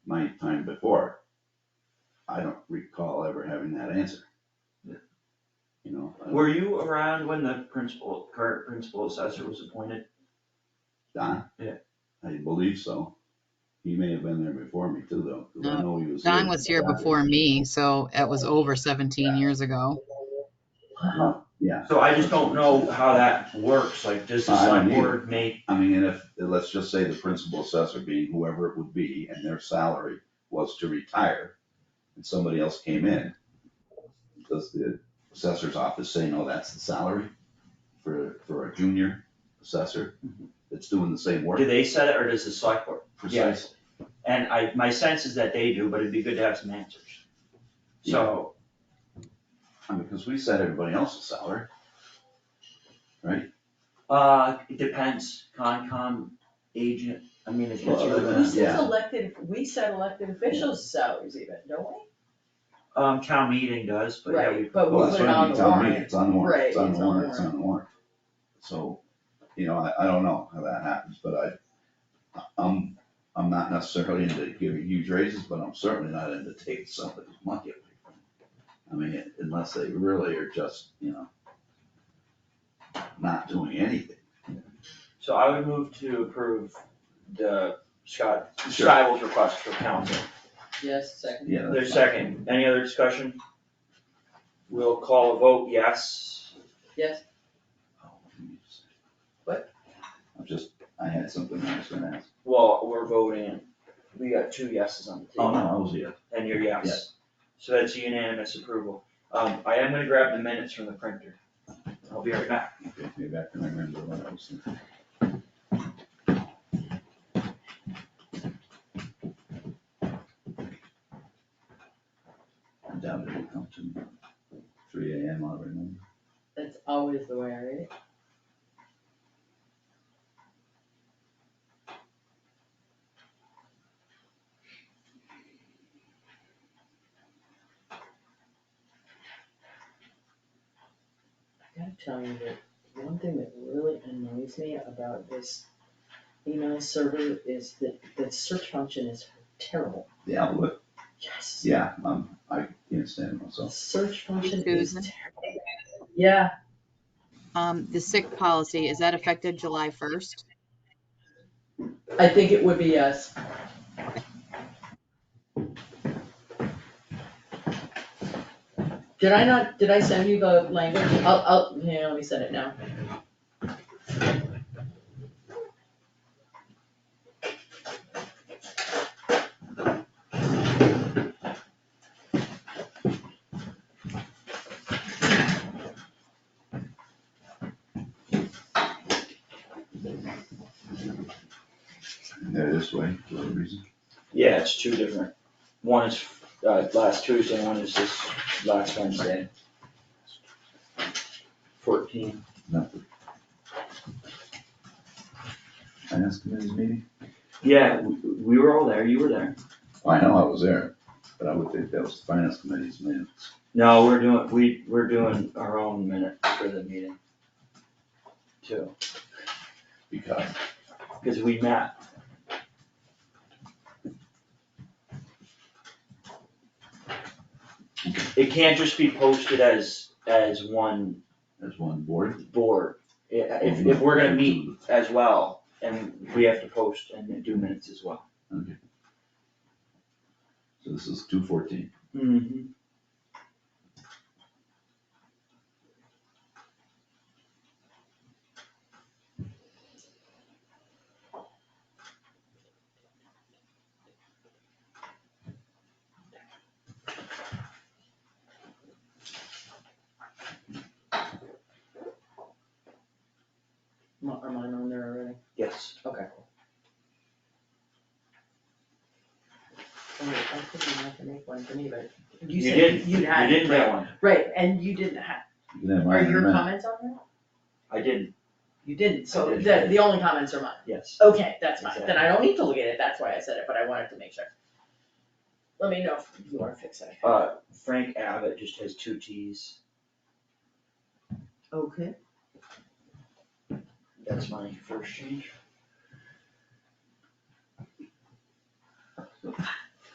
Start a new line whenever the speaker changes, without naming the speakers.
my time before, I don't recall ever having that answer.
Yeah.
You know, uh,
Were you around when the principal, current principal assessor was appointed?
Don?
Yeah.
I believe so. He may have been there before me too, though, 'cause I know he was.
Don was here before me, so it was over 17 years ago.
Uh, Yeah,
So I just don't know how that works, like, does the
I don't
select
either.
board make,
I mean, and if, let's just say the principal assessor being whoever it would be, and their salary was to retire, and somebody else came in, does the assessor's office say, no, that's the salary for, for a junior assessor
Mm-hmm.
that's doing the same work?
do they set it, or does the select board?
Precisely.
And I, my sense is that they do, but it'd be good to have some answers. So,
I mean, because we set everybody else's salary.
uh, it depends, Concom agent, I mean, it gets really
We
Well,
messy.
set
Yeah.
elected, we set elected officials' salaries even, don't we?
Um, town meeting does, but yeah, we.
Right, but we
Well,
put
that's
it
what I mean,
on
it's
the
on me,
warrant.
it's on the warrant,
Right,
it's on the warrant, it's on the warrant. So, you know, I, I don't know how that happens, but I, I'm, I'm not necessarily into giving huge raises, but I'm certainly not into taking somebody's money away from them. I mean, unless they really are just, you know, not doing anything.
So I would move to approve the Scott,
Sure.
Stiles request for council.
Yes, second.
Yeah, that's
There's
fine.
second, any other discussion? We'll call a vote, yes.
Yes,
Oh, let me just-
What?
I'm just, I had something I was gonna ask.
Well, we're voting, we got two yeses on the
Oh, no,
table,
I was here.
and you're Uh-huh. yes. So that's unanimous approval. Um, I am gonna grab the minutes from the printer. I'll be right back.
Okay, maybe I can remember what I was thinking. I doubt it'll come to me. three AM, I remember.
that's always the way I read it. I gotta tell you that one thing that really annoys me about this email server is that the search function is terrible.
The outlook,
Yes.
yeah, um, I can't stand
The
myself.
search function is
Susan?
terrible. Yeah,
Um, the sick policy, is that affected July 1st?
I think it would be yes. Did I not, did I send you the language? I'll, I'll, yeah, let me send it now.
They're this way for a reason.
Yeah, it's two different. One is, uh, last Tuesday, one is this last Wednesday. Fourteen.
Nothing. Finance committee's meeting?
Yeah, we, we were all there, you were there.
I know I was there, but I would think that was the finance committee's minutes.
No, we're doing, we, we're doing our own minute for the meeting. Too,
Because
because we met. It can't just be posted as, as one
there's one board,
board. I- If, if we're gonna meet as well, and we have to post and do minutes as well.
okay. So this is two fourteen.
Mm-hmm.
Am I- Am I on there already?
Yes.
Okay, cool. Oh, wait, I think you have to make one for me, but you
You
said
did,
you
you
had. it,
didn't get one.
Right, and you didn't have,
You can have
are
mine in a
your
minute.
comments on there?
I didn't,
You didn't, so
I did.
the, the only comments are mine.
yes.
Okay, that's fine, then I don't need to look at it, that's why I said it, but I wanted to make sure. Let me know if you wanna fix it.
Uh, Frank Abbott just has two Ts.
Okay.
That's my first change.